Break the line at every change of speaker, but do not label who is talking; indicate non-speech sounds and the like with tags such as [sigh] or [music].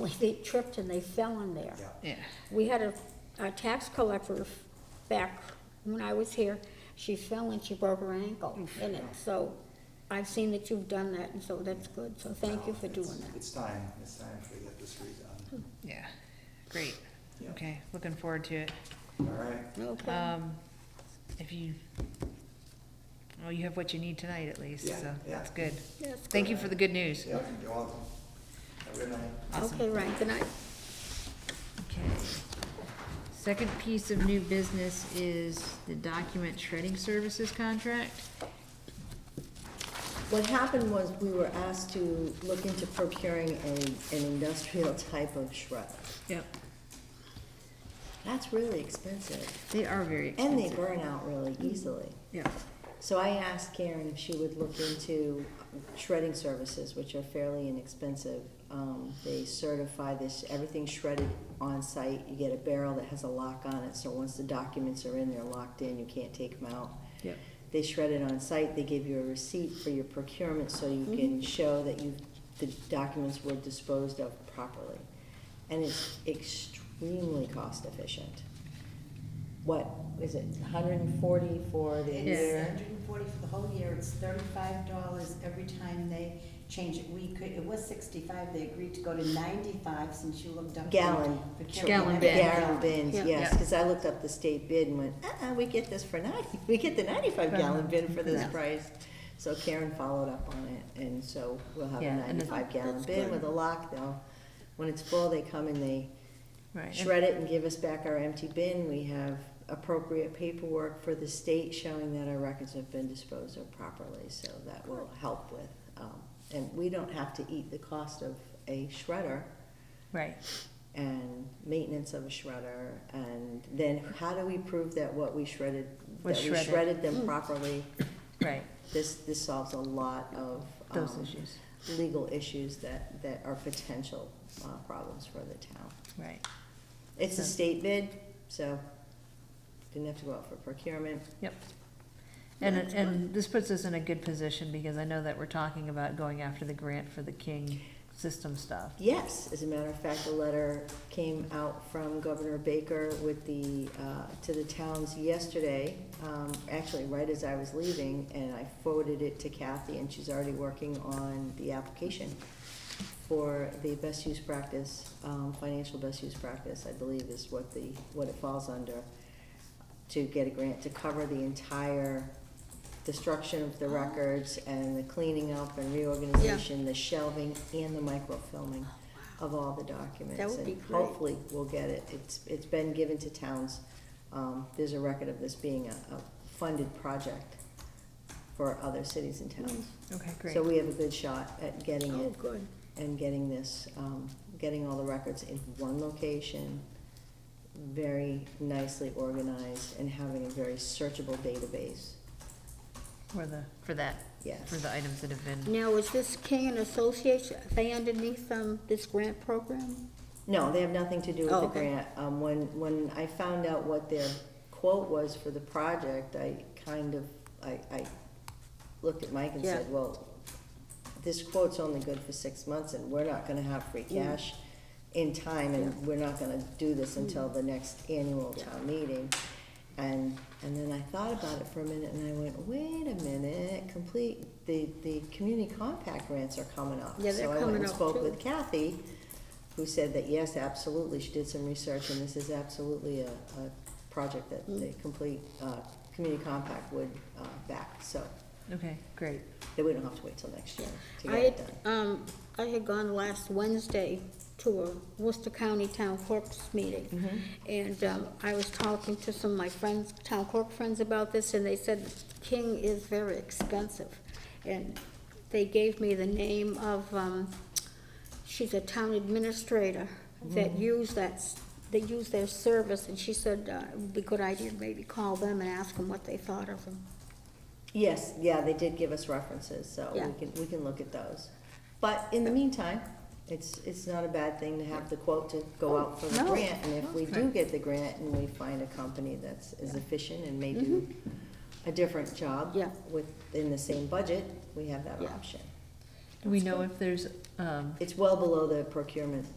accidentally, they tripped and they fell in there.
Yeah.
We had a, a tax collector back when I was here, she fell and she broke her ankle in it, so I've seen that you've done that, and so that's good, so thank you for doing
It's-
that. Hmm.
It's time, it's time for get this redone.
Yeah, great.
Yeah.
Okay, looking forward to it.
All right,
Okay,
Um, if you, well, you have what you need tonight at least,
Yeah,
so
yeah.
that's good.
That's
Thank you for the good news.
yeah, you're welcome. Have a good night.
Awesome.
okay, right, good night.
Okay. Second piece of new business is the document shredding services contract.
What happened was we were asked to look into procuring a, an industrial type of shredder.
Yep.
That's really expensive,
They are very
and
expensive.
they burn out really easily.
Yeah,
So I asked Karen if she would look into shredding services, which are fairly inexpensive. Um, they certify this, everything's shredded on site. You get a barrel that has a lock on it, so once the documents are in, they're locked in, you can't take them out.
yep.
They shred it on site, they give you a receipt for your procurement so you can show that you, the documents were disposed of properly. And it's extremely cost efficient. What, is it hundred and forty for the
Yeah.
It's
year?
hundred and forty for the whole year, it's thirty-five dollars every time they change it. We could, it was sixty-five, they agreed to go to ninety-five since you looked up. the
Gallon.
Gallon
procurement.
bin.
Gallon bins,
Yeah.
yes,
Yeah.
cause I looked up the state bid and went, uh-uh, we get this for ninety, [laughs] we get the ninety-five gallon bin for this
Yeah.
price. So Karen followed up on it, and so we'll have a
Yeah, and the-
ninety-five gallon
That's
bin
good.
with a lock, they'll, when it's full, they come and they
Right.
shred it and give us back our empty bin. We have appropriate paperwork for the state showing that our records have been disposed of properly, so that will help with. um, And we don't have to eat the cost of a shredder
Right.
and maintenance of a shredder. And then how do we prove that what we shredded,
Was
that we
shredded. Hmm.
shredded them properly?
Right,
This, this solves a lot of.
those
um,
issues,
Legal issues that, that are potential uh, problems for the town.
right.
It's a
So-
state bid, so didn't have to go out for procurement.
Yep. And, and this puts us in a good position because I know that we're talking about going after the grant for the King system stuff.
Yes, as a matter of fact, a letter came out from Governor Baker with the, uh, to the towns yesterday, um, actually right as I was leaving, and I forwarded it to Kathy, and she's already working on the application for the best use practice, um, financial best use practice, I believe is what the, what it falls under, to get a grant to cover the entire destruction
Oh.
of the records and the cleaning up and reorganization, the shelving and the microfilming of all the documents.
Oh, That would be
And
great.
Hopefully, we'll get it. It's, it's been given to towns. Um, there's a record of this being a, a funded project for other cities and towns.
Okay, great.
So we have a good shot at getting
Mm, Oh,
it
good.
and getting this, um, getting all the records in one location, very nicely organized, and having a very searchable database,
For the, for that, for
yes.
the items that have been,
Now, is this King and Associates, are they underneath, um, this grant program?
No, they have nothing to do with
Oh,
the
okay.
grant. Um, when, when I found out what their quote was for the project, I kind of, I, I looked at Mike and
Yeah.
said, well, this quote's only good for six months, and we're not gonna have free
Mm.
cash in time, and we're not gonna do this until the next annual town meeting. And, and then I thought about it for a minute, and I went, wait a minute, complete, the, the community compact grants are coming up.
Yeah, they're
So I
coming
went and
up,
spoke
too.
with Kathy, who said that, yes, absolutely, she did some research, and this is absolutely a, a project that
Mm-hmm.
the complete, uh, community compact would, uh, back, so
okay, great.
that we don't have to wait till next year to
I
get it
had,
done.
um, I had gone last Wednesday to a Worcester County Town Clerk's meeting. And, um, I was talking to some of my friends, town clerk friends about this, and they said King is very expensive. And they gave me the name of, um, she's a town administrator that used that, s- they use their service, and she said, uh, it would be a good idea to maybe call them and ask them what they thought of them.
Yes, yeah, they did give us references, so
Yeah.
we can, we can look at those. But in the meantime, it's, it's not a bad thing to have the quote to go out for the
Oh, No.
grant. And if we do
Okay.
get the grant and we find a company that's is efficient and may do a different job
Mm-hmm. Yeah.
within the same budget, we have that
Yeah.
option.
Do we know if there's, um,
It's well below the procurement